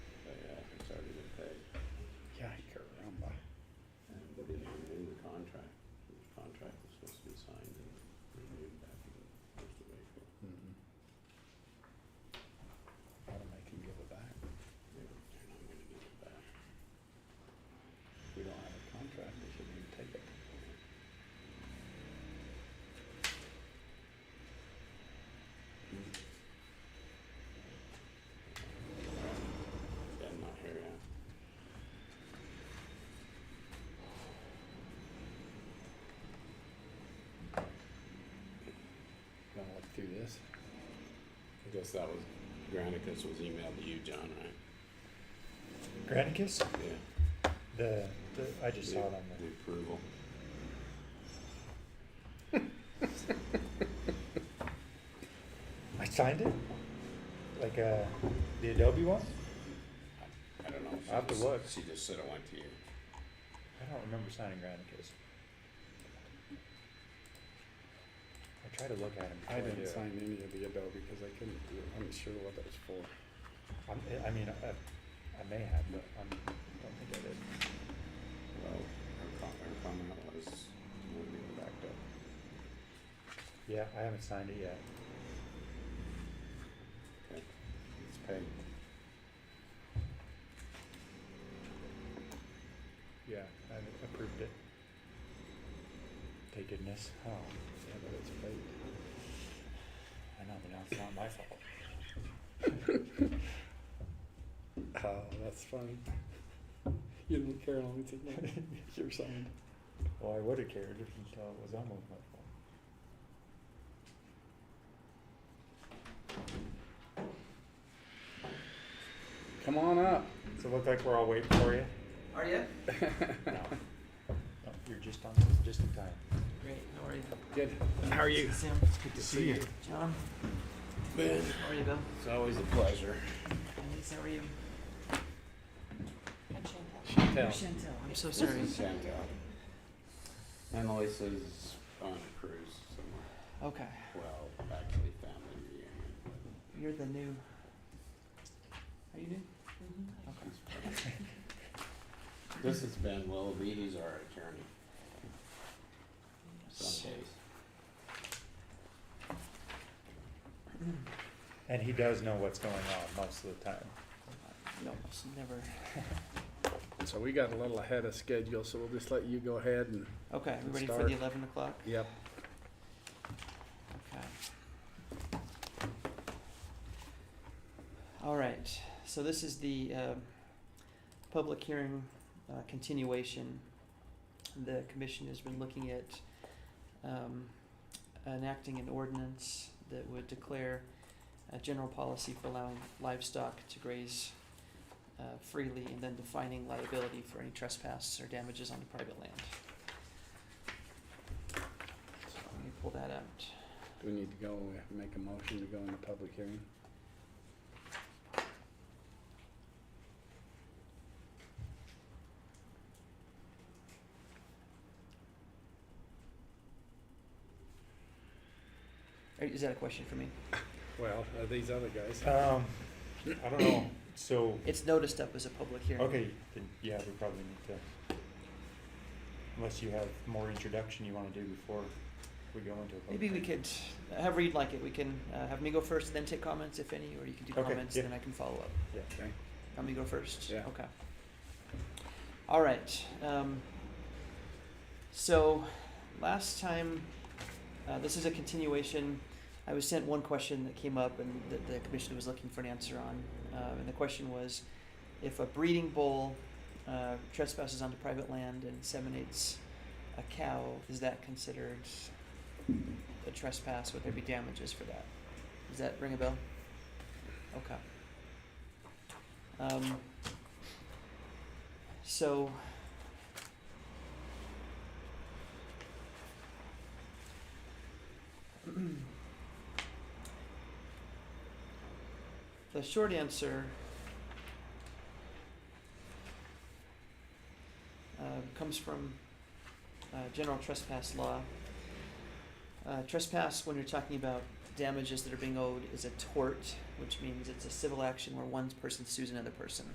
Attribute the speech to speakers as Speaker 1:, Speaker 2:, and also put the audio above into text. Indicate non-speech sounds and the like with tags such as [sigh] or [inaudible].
Speaker 1: uh, Mm-hmm. through this? I guess that was, Granicus was emailed to you, John, right?
Speaker 2: Granicus?
Speaker 1: Yeah.
Speaker 2: The, the I just saw it on
Speaker 1: The approval.
Speaker 2: the. I signed it. Like uh, the Adobe one.
Speaker 1: I don't know. if she
Speaker 2: I'll have to
Speaker 1: just-
Speaker 2: look.
Speaker 1: She just said it went to you.
Speaker 2: I don't remember signing Granicus. I try to look at him.
Speaker 1: I
Speaker 2: before do
Speaker 1: didn't
Speaker 2: it.
Speaker 1: sign any of the Adobe because I couldn't, I'm not sure what that was for.
Speaker 2: I'm, I mean, I, I may have, but I'm, don't think I did.
Speaker 1: Well, her com- her comment was, wouldn't even backed up.
Speaker 2: Yeah, I haven't signed it yet.
Speaker 1: Okay, it's paid.
Speaker 2: Yeah, I haven't approved it. Thank goodness. Oh,
Speaker 1: Yeah, but it's paid.
Speaker 2: I know, but now it's not my fault.
Speaker 1: Oh, that's funny. You didn't care how long it took me. [laughs] You're signed.
Speaker 2: Well, I would have cared if you thought it was almost my fault.
Speaker 1: Come on up.
Speaker 2: So it looked like we're all waiting for you?
Speaker 3: Are you?
Speaker 2: No. No, you're just on, just in time.
Speaker 3: Great, how are you?
Speaker 1: Good. How are you?
Speaker 3: Sam, it's good to
Speaker 1: see you.
Speaker 3: John,
Speaker 1: Ben.
Speaker 3: how are you, Bill?
Speaker 1: It's always a pleasure.
Speaker 3: Annalise, how are you?
Speaker 1: Chantel.
Speaker 3: Chantel, I'm so sorry. [laughs]
Speaker 1: Chantel. Annalise is on a cruise somewhere.
Speaker 3: Okay,
Speaker 1: Well, actually family reunion.
Speaker 3: you're the new. Are you new? Okay.
Speaker 1: Okay. This is Ben Willoughby, he's our attorney. Some days.
Speaker 2: And he does know what's going on most of the time.
Speaker 3: No, it's never.
Speaker 4: So we got a little ahead of schedule, so we'll just let you go ahead and,
Speaker 3: Okay, we
Speaker 4: Let's
Speaker 3: ready for the
Speaker 4: start.
Speaker 3: eleven o'clock?
Speaker 4: yep.
Speaker 3: Okay. All right, so this is the uh, public hearing uh, continuation. The commission has been looking at um, enacting an ordinance that would declare a general policy for allowing livestock to graze uh, freely and then defining liability for any trespass or damages on private land. So let me pull that out.
Speaker 4: Do we need to go, we have to make a motion to go into public hearing?
Speaker 3: Or Is that a question for me?
Speaker 4: Well, uh, these other guys.
Speaker 2: Um, I don't know, so,
Speaker 3: It's noticed up as a public hearing.
Speaker 2: okay, then, yeah, we probably need to. Unless you have more introduction you wanna do before we go into a. public
Speaker 3: Maybe we
Speaker 2: hearing.
Speaker 3: could, however you'd like it, we can uh, have me go first, then take comments if any, or you can do
Speaker 2: Okay,
Speaker 3: comments,
Speaker 2: yeah.
Speaker 3: then I can follow up.
Speaker 4: Okay.
Speaker 3: Want me to go first?
Speaker 4: Yeah.
Speaker 3: Okay. All right. Um, so, last time, uh, this is a continuation. I was sent one question that came up and that the commission was looking for an answer on. Uh, and the question was if a breeding bull uh, trespasses onto private land and inseminates a cow, is that considered a trespass? Would there be damages for that? Does that ring a bell? Okay. Um, so. [clears throat] the short answer uh, comes from uh, general trespass law. Uh, trespass, when you're talking about damages that are being owed, is a tort, which means it's a civil action where one person sues another person.